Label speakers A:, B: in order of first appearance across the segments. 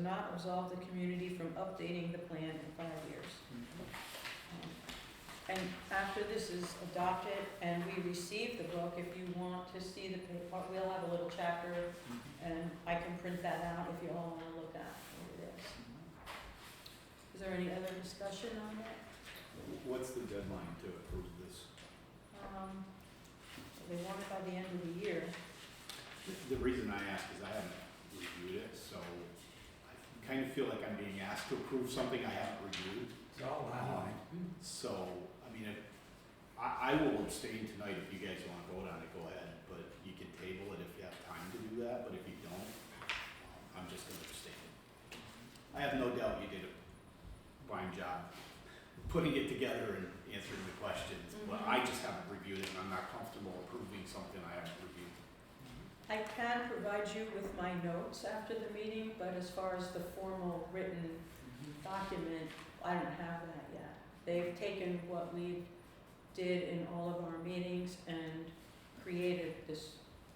A: not absolve the community from updating the plan in five years. Um, And after this is adopted and we receive the book, if you want to see the paper, we'll have a little chapter and I can print that out if you all wanna look at what it is. Is there any other discussion on that?
B: What's the deadline to approve this?
A: Um, They want it by the end of the year.
B: The- The reason I ask is I haven't reviewed it, so I kind of feel like I'm being asked to approve something I haven't reviewed.
C: It's all online.
B: So, I mean, if- I, I will abstain tonight if you guys want to vote on it, go ahead, but you can table it if you have time to do that, but if you don't, um, I'm just going to abstain. I have no doubt you did a fine job putting it together and answering the questions, but I just haven't reviewed it, and I'm not comfortable approving something I haven't reviewed.
A: I can provide you with my notes after the meeting, but as far as the formal written document, I don't have that yet. They've taken what we did in all of our meetings and created this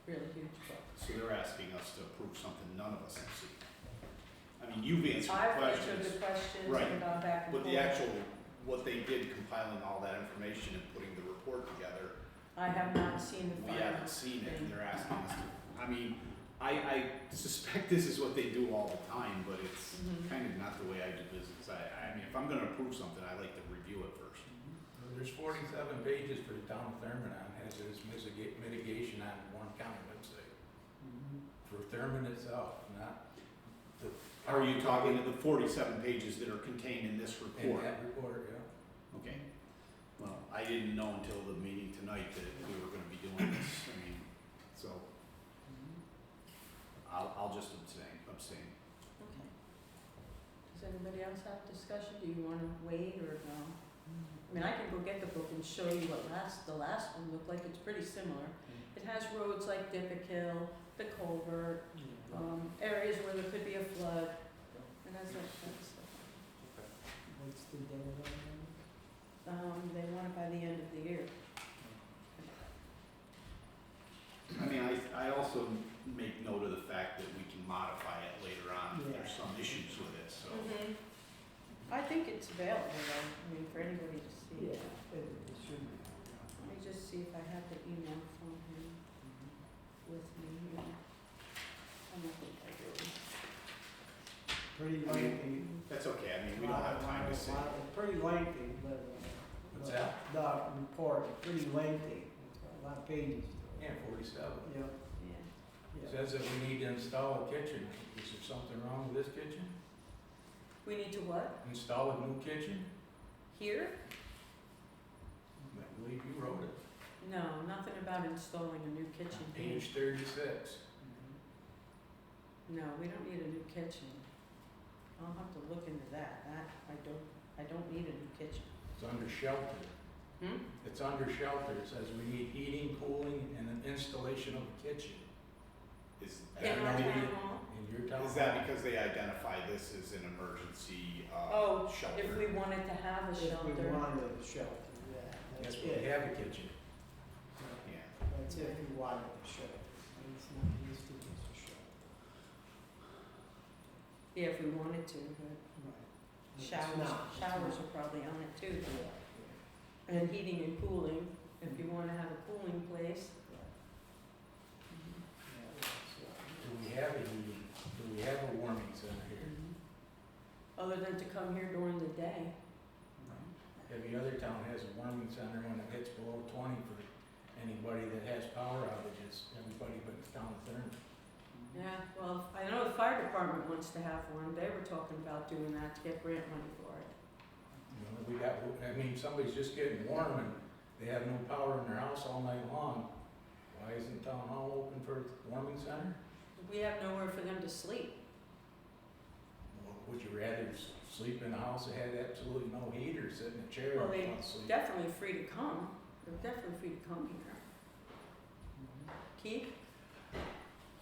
A: really huge book.
B: So they're asking us to approve something none of us have seen. I mean, you've answered
A: I've answered
B: questions,
A: the questions
B: Right.
A: and gone back and
B: but
A: forth.
B: the actual, what they did compiling all that information and putting the report together,
A: I have not seen the
B: we
A: final.
B: haven't seen it, and they're asking us to. I mean, I, I suspect this is what they do all the time, but it's
A: Mhm.
B: kind of not the way I do business. I, I mean, if I'm gonna approve something, I like to review it first.
C: There's forty-seven pages for the town of Thurmond on hazardous mitiga- mitigation on Warren County website. For Thurmond itself, not the.
B: Are you talking to the forty-seven pages that are contained in this
C: In
B: report?
C: that report, yeah.
B: Okay. Well, I didn't know until the meeting tonight that we were gonna be doing this, I mean, so. I'll, I'll just abstain, abstain.
A: Okay. Does anybody else have discussion? Do you wanna wait or no? I mean, I can go get the book and show you what last, the last one looked like, it's pretty similar. It has roads like Dippick Hill, the culvert, um, areas where there could be a flood, and that's that kind of stuff.
D: What's the deadline?
A: Um, they want it by the end of the year.
B: I mean, I, I also make note of the fact that we can modify it later on if there's
D: Yeah.
B: some issues with it, so.
A: Mm-hmm. I think it's available, though, I mean, for anybody to see.
D: Yeah, it it should be.
A: Let me just see if I have the email from him with me here. I don't think I do.
D: Pretty
B: I mean,
D: lengthy.
B: That's okay, I mean, we don't have time to sit.
D: Lot- lot- Pretty lengthy, but. uh,
C: What's
D: but
C: that?
D: The report, pretty lengthy, it's got a lot of pages to it.
C: Yeah, forty-seven.
D: Yeah,
A: Yeah.
D: yeah.
C: Says that we need to install a kitchen. Is there something wrong with this kitchen?
A: We need to what?
C: Install a new kitchen?
A: Here?
C: I believe you wrote it.
A: No, nothing about installing a new kitchen here.
C: Page thirty-six.
A: No, we don't need a new kitchen. I'll have to look into that. That, I don't, I don't need a new kitchen.
C: It's under shelter.
A: Hmm?
C: It's under shelter. It says we need heating, cooling, and an installation of a kitchen
B: Is,
A: In our
C: Yeah,
B: that-
A: town hall,
C: in your town.
B: is that because they identify this as an emergency, uh,
A: Oh,
B: shelter?
A: if we wanted to have a
D: If we
A: shelter.
D: wanted a shelter, yeah, that's
C: Yes,
D: it.
C: we have a kitchen.
D: Yeah,
B: Yeah.
D: That's if you wanted a shelter, it's not used to as a shelter.
A: Yeah, if we wanted to, but
D: Right. It's
A: showers,
D: not, it's
A: showers
D: not.
A: are probably on it too.
D: Yeah, yeah,
A: And heating and cooling, if you wanna have a cooling place.
D: yeah, that's right.
C: Do we have a heating? Do we have a warming center here?
A: Other than to come here during the day.
C: Every other town has a warming center when it gets below twenty for anybody that has power outages, everybody but the town of Thurmond.
A: Yeah, well, I know the fire department wants to have one. They were talking about doing that to get grant money for it.
C: You know, we got, I mean, somebody's just getting warm and they have no power in their house all night long. Why isn't town hall open for a warming center?
A: We have nowhere for them to sleep.
C: Well, Would you rather s- sleep in a house that had absolutely no heat or sit in a chair
A: Well,
C: and
A: they
C: fall asleep?
A: Definitely free to come. They're definitely free to come here. Keith?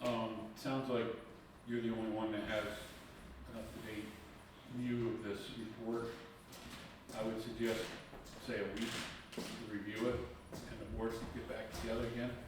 E: Um, sounds like you're the only one that has an up-to-date view of this report. I would suggest, say, a week to review it, and the board can get back together again.